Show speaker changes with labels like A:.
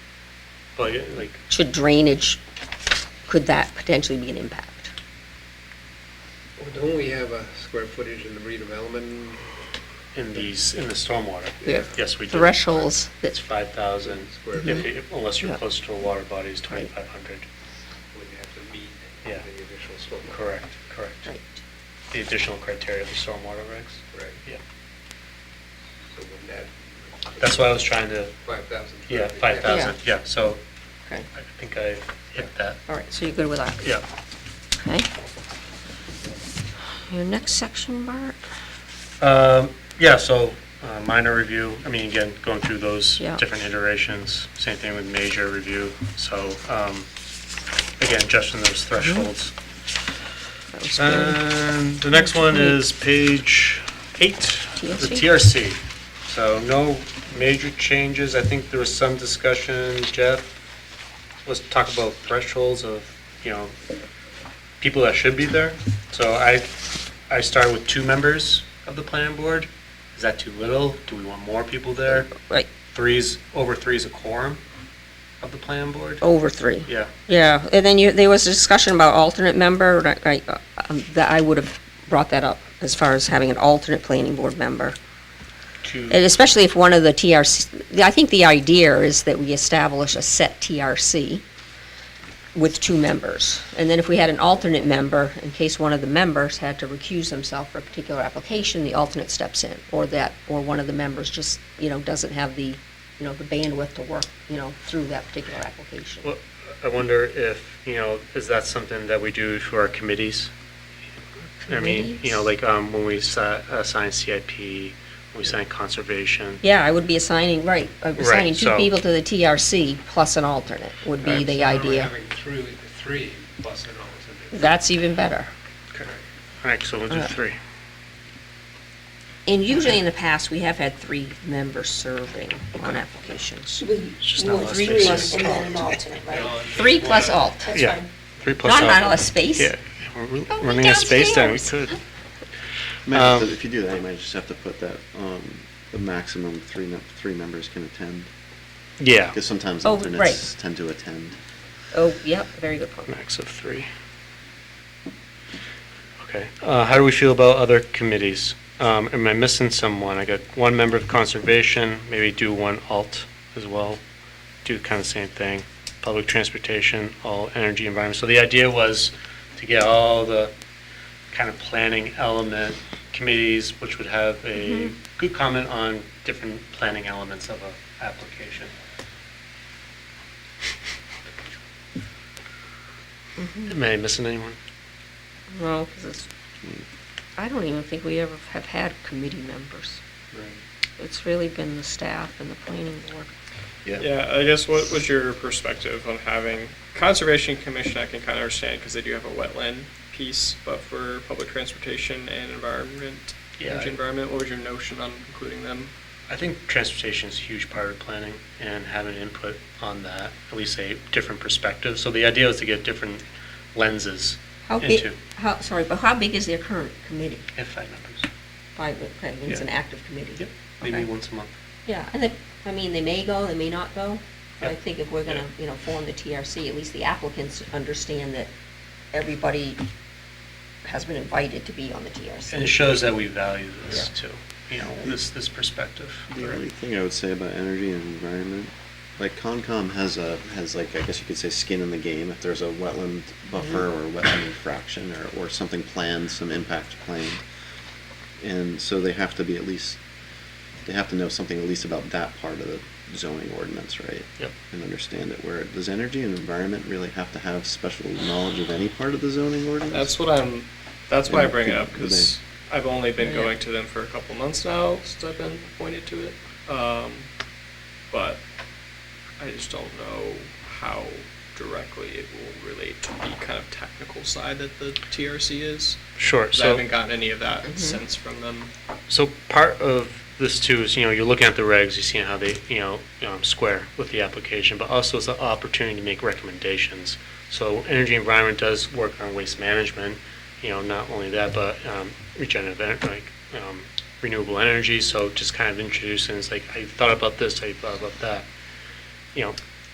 A: But yeah, like,
B: to drainage, could that potentially be an impact?
C: Well, Don't we have a square footage in the redevelopment?
A: in these, in the stormwater,
B: The
A: yes, we do.
B: thresholds
A: It's
B: that,
A: five thousand,
C: Square
A: if, you- unless you're
B: Yeah.
A: close to a water body, it's twenty-five hundred.
C: Would you have to meet
A: Yeah.
C: the additional slope?
A: Correct, correct.
B: right,
A: The additional criteria of the stormwater regs.
C: Right,
A: Yeah,
C: so would that,
A: that's why I was trying to,
C: 5,000?
A: yeah, five thousand, yeah, so
B: okay,
A: I think I hit that,
B: all right, so you're good with that?
A: yeah.
B: Okay. Your next section, Bart?
A: Um, Yeah, so uh, minor review, I mean, again, going through those
B: Yeah.
A: different iterations, same thing with major review. So um, again, adjusting those thresholds.
B: That was
A: Uh,
B: good.
A: And the next one is page eight, the TRC. So no major changes. I think there was some discussion, Jeff, let's talk about thresholds of, you know, people that should be there. So I, I start with two members of the planning board. Is that too little? Do we want more people there?
B: Right,
A: Three's, over three is a quorum of the planning board?
B: over three.
A: Yeah,
B: Yeah, and then you, there was a discussion about alternate member, right, right, um, that I would have brought that up as far as having an alternate planning board member.
A: two.
B: And especially if one of the TRC, I think the idea is that we establish a set TRC with two members. And then if we had an alternate member, in case one of the members had to recuse themselves for a particular application, the alternate steps in. Or that, or one of the members just, you know, doesn't have the, you know, the bandwidth to work, you know, through that particular application.
A: Well, I wonder if, you know, is that something that we do for our committees? I mean, you know, like um, when we si- assign CIP, when we assign conservation.
B: Yeah, I would be assigning, right, uh, assigning two
A: so-
B: people to the TRC plus an alternate would be
A: Right.
B: the idea.
C: Having three, three plus an alternate.
B: That's even better.
A: All right, so we'll do
B: Uh,
A: three.
B: And usually in the past, we have had three members serving on applications.
D: With,
A: just not a lot
D: with
A: of
D: three
A: spaces.
D: and then an alternate, right?
B: Three plus alt,
D: That's
A: Yeah.
D: fine.
A: Three plus.
B: not not a lot of space. Oh,
A: Yeah, we're re-
B: Go
A: running out of space down, we
B: downstairs.
A: could.
E: Might have
A: Um,
E: to- if you do that, you might just have to put that um, the maximum three mem- three members can attend
A: Yeah,
E: because sometimes
B: Oh,
E: alternates
B: right.
E: tend to attend.
B: Oh, yep, very good point.
A: max of three. Okay, uh, how do we feel about other committees? Um, Am I missing someone? I got one member of conservation, maybe do one alt as well, do kind of same thing. Public transportation, all energy environment. So the idea was to get all the kind of planning element committees, which would have a good comment on different planning elements of a application. Am I missing anyone?
B: Well, 'cause it's, I don't even think we ever have had committee members. It's really been the staff and the planning board.
F: Yeah, I guess what was your perspective on having conservation commission? I can kind of understand because they do have a wetland piece, but for public transportation and environment,
A: Yeah,
F: energy
A: I-
F: environment, what was your notion on including them?
A: I think transportation is a huge part of planning and having input on that, at least a different perspective. So the idea is to get different lenses
B: How big,
A: into
B: how, sorry, but how big is their current committee?
A: if five members,
B: Five, okay, it's an
A: Yeah.
B: active committee.
A: Yep. maybe
B: Okay.
A: once a month.
B: Yeah, and they, I mean, they may go, they may not go. But I
A: Yeah.
B: think if we're gonna,
A: Yeah.
B: you know, form the TRC, at least the applicants understand that everybody has been invited to be on the
A: And it
B: TRC.
A: shows that we value this
B: Yeah.
A: too, you know, this, this perspective.
E: The only thing I would say about energy and environment, like Concom has a has like I guess you could say skin in the game if there's a wetland buffer or wetland infraction or or something planned, some impact planned, and so they have to be at least they have to know something at least about that part of the zoning ordinance, right?
A: Yep.
E: and understand it. Where does energy and environment really have to have special knowledge of any part of the zoning ordinance?
F: That's what I'm. That's why I
E: Yeah,
F: bring it up
E: good
F: because I've only been
B: Yeah.
F: going to them for a couple months now since I've been appointed to it. Um, but I just don't know how directly it will relate to the kind of technical side that the TRC is.
A: Sure,
F: 'Cause I haven't gotten any of that sense from them.
A: So part of this too is, you know, you're looking at the regs, you're seeing how they, you know, um, square with the application, but also it's an opportunity to make recommendations. So energy environment does work on waste management, you know, not only that, but um, regenerative, en- like um, renewable energy. So just kind of introducing, it's like, I thought about this, I thought about that. You know,